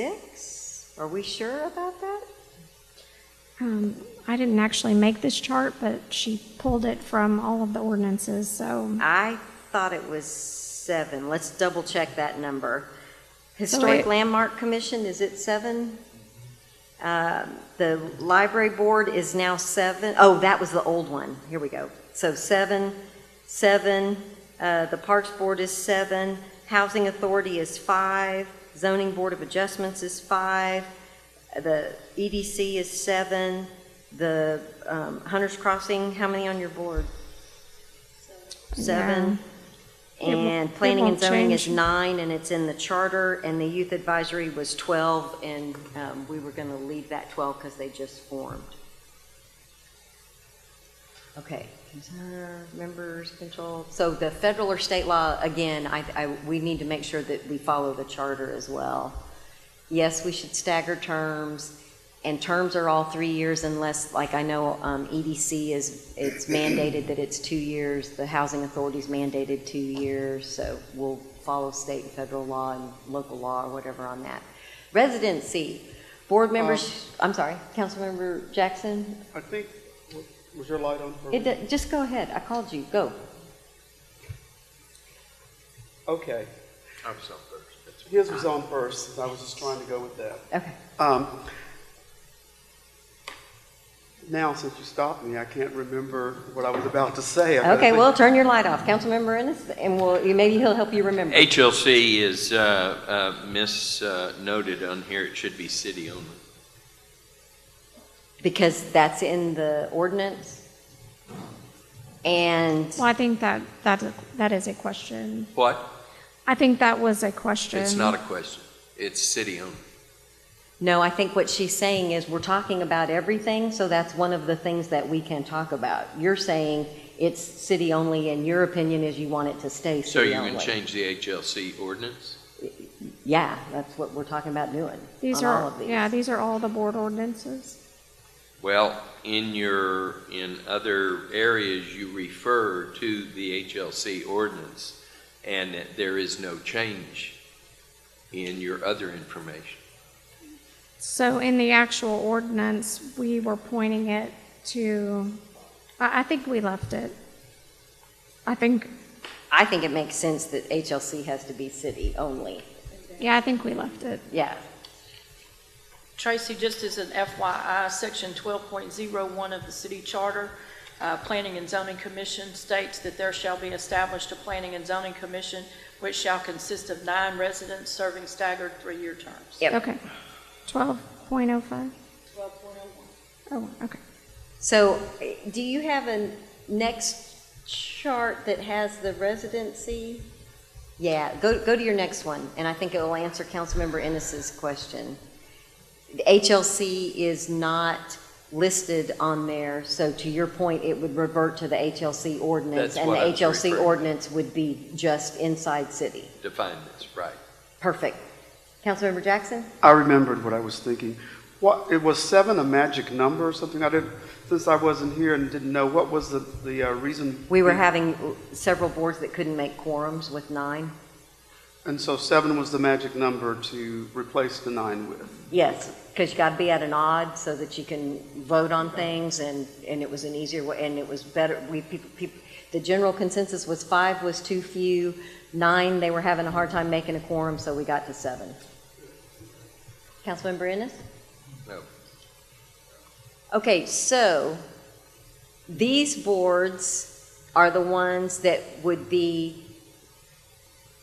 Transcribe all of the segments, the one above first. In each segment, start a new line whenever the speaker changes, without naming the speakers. six? Are we sure about that?
Um, I didn't actually make this chart, but she pulled it from all of the ordinances, so.
I thought it was seven. Let's double check that number. Historic
it-
Landmark Commission, is it seven? Um, The library board is now seven. Oh, that was the old one. Here we go. So seven, seven, uh, the Parks Board is seven, Housing Authority is five, Zoning Board of Adjustments is five, the EDC is seven, the um, Hunters Crossing, how many on your board? Seven.
It won't-
And
it
planning and
won't
zoning is
change.
nine, and it's in the charter, and the youth advisory was 12, and um, we were going to leave that 12 because they just formed. Okay, concern, members, control, so the federal or state law, again, I, I, we need to make sure that we follow the charter as well. Yes, we should stagger terms, and terms are all three years unless, like I know, um, EDC is, it's mandated that it's two years, the housing authority's mandated two years, so we'll follow state and federal law and local law or whatever on that. Residency, board members, I'm sorry, Councilmember Jackson,
I think, w- was your light on? for-
it, do- just go ahead, I called you, go.
Okay,
I'm so first.
his was on first, since I was just trying to go with that.
Okay.
Um, now, since you stopped me, I can't remember what I was about to say. I better
Okay,
think-
well, turn your light off, Councilmember Ennis, and we'll, maybe he'll help you remember.
HLC is uh, uh, misnoted on here. It should be city only.
Because that's in the ordinance? And,
Well, I think that, that, that is a question.
What?
I think that was a question.
It's
Mm-hmm.
not a question. It's city only.
no, I think what she's saying is, we're talking about everything, so that's one of the things that we can talk about. You're saying it's city only, and your opinion is you want it to stay
So you
city only.
can change the HLC ordinance?
Yeah, that's what we're talking about doing,
These
on
are,
all of these.
yeah, these are all the board ordinances.
Well, in your, in other areas, you refer to the HLC ordinance, and that there is no change in your other information.
So in the actual ordinance, we were pointing it to, I, I think we left it. I think,
I think it makes sense that HLC has to be city only,
yeah, I think we left it.
yeah.
Tracy, just as an FYI, Section 12.01 of the city charter, uh, Planning and Zoning Commission states that there shall be established a Planning and Zoning Commission which shall consist of nine residents serving staggered three-year terms.
Yep.
Okay. Twelve point oh five? Oh, okay.
So, eh, do you have a next chart that has the residency? Yeah, go, go to your next one, and I think it will answer Councilmember Ennis's question. The HLC is not listed on there, so to your point, it would revert to the HLC ordinance,
That's
and the
what I was
HLC
referring to.
ordinance would be just inside city.
Define this, right?
Perfect. Councilmember Jackson?
I remembered what I was thinking. What, it was seven a magic number or something? I didn't, since I wasn't here and didn't know, what was the, the uh, reason?
We were having several boards that couldn't make quorums with nine.
And so seven was the magic number to replace the nine with.
Yes, because you got to be at an odd so that you can vote on things, and, and it was an easier way, and it was better, we, people, people, the general consensus was five was too few, nine, they were having a hard time making a quorum, so we got to seven. Councilmember Ennis?
No.
Okay, so these boards are the ones that would be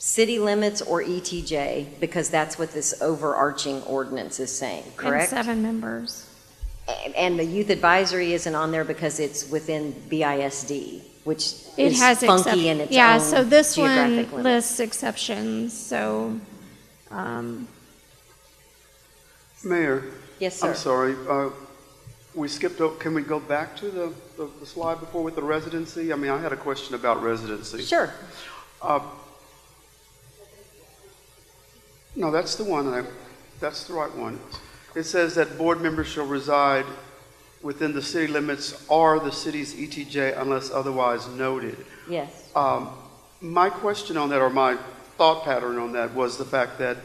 city limits or ETJ, because that's what this overarching ordinance is saying, correct?
And seven members.
And- And the youth advisory isn't on there because it's within BISD, which
It
is
has
funky
excep-
in its
Yeah,
own
so this
geographic limit.
one lists exceptions, so, um,
Mayor?
Yes, sir.
I'm sorry, uh, we skipped, o- can we go back to the, the- the slide before with the residency? I mean, I had a question about residency.
Sure.
Uh, No, that's the one, I- that's the right one. It says that board members shall reside within the city limits or the city's ETJ unless otherwise noted.
Yes.
Um, My question on that, or my thought pattern on that, was the fact that